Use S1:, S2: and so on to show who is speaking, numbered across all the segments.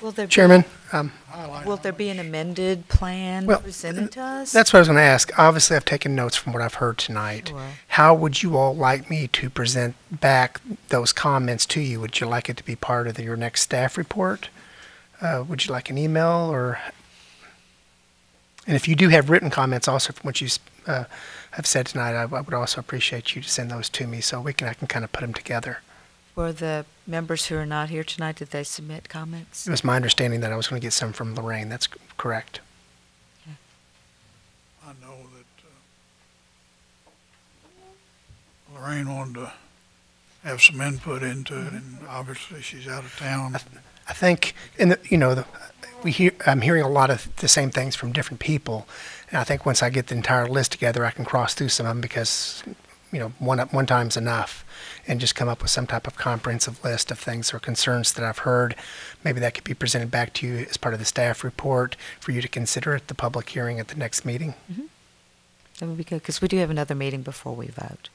S1: Will there be-
S2: Chairman, um,
S1: Will there be an amended plan
S2: Well,
S1: presented to us?
S2: that's what I was going to ask. Obviously, I've taken notes from what I've heard tonight.
S1: Sure.
S2: How would you all like me to present back those comments to you? Would you like it to be part of the- your next staff report? Uh, Would you like an email or? And if you do have written comments also from what you s- uh, have said tonight, I I would also appreciate you to send those to me so we can, I can kind of put them together.
S1: For the members who are not here tonight, did they submit comments?
S2: It was my understanding that I was going to get some from Lorraine. That's c- correct.
S3: I know that uh, Lorraine wanted to have some input into it, and obviously she's out of town.
S2: I think, and the, you know, the, we hear, I'm hearing a lot of the same things from different people, and I think once I get the entire list together, I can cross through some of them because, you know, one one time's enough, and just come up with some type of comprehensive list of things or concerns that I've heard. Maybe that could be presented back to you as part of the staff report for you to consider at the public hearing at the next meeting.
S1: That would be good, because we do have another meeting before we vote,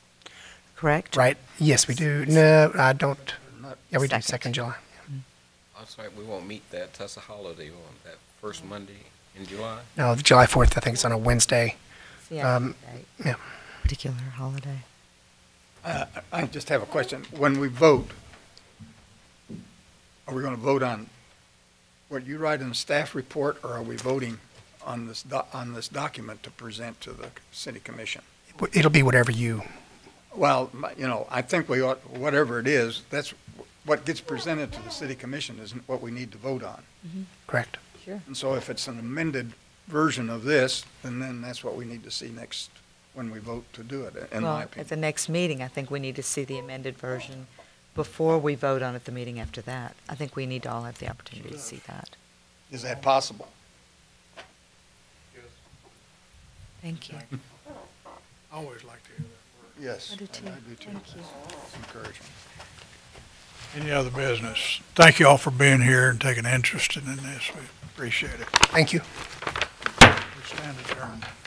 S1: correct?
S2: Right? Yes, we do. No, I don't. Yeah, we do
S1: Second.
S2: second July.
S4: That's right, we won't meet that, that's a holiday on that first Monday in July.
S2: No, July 4th. I think it's on a Wednesday.
S1: Yeah,
S2: Um,
S1: right.
S2: yeah.
S1: Particular holiday.
S5: I just have a question. When we vote, are we going to vote on what you write in the staff report, or are we voting on this, doc- on this document to present to the city commission?
S2: It'll be whatever you
S5: Well, my- you know, I think we ought, whatever it is, that's, what gets presented to the city commission isn't what we need to vote on.
S2: correct.
S5: And so if it's an amended version of this, then then that's what we need to see next, when we vote to do it, in
S1: Well,
S5: my
S1: At the
S5: opinion.
S1: next meeting, I think we need to see the amended version before we vote on it the meeting after that. I think we need to all have the opportunity to see that.
S5: Is that possible?
S1: Thank you.
S3: I always like to hear that
S5: Yes.
S1: I do too. Thank you.
S5: It's Encouraging.
S3: word. Any other business? Thank you all for being here and taking interest in this. We appreciate it.
S2: Thank you.
S3: We stand adjourned.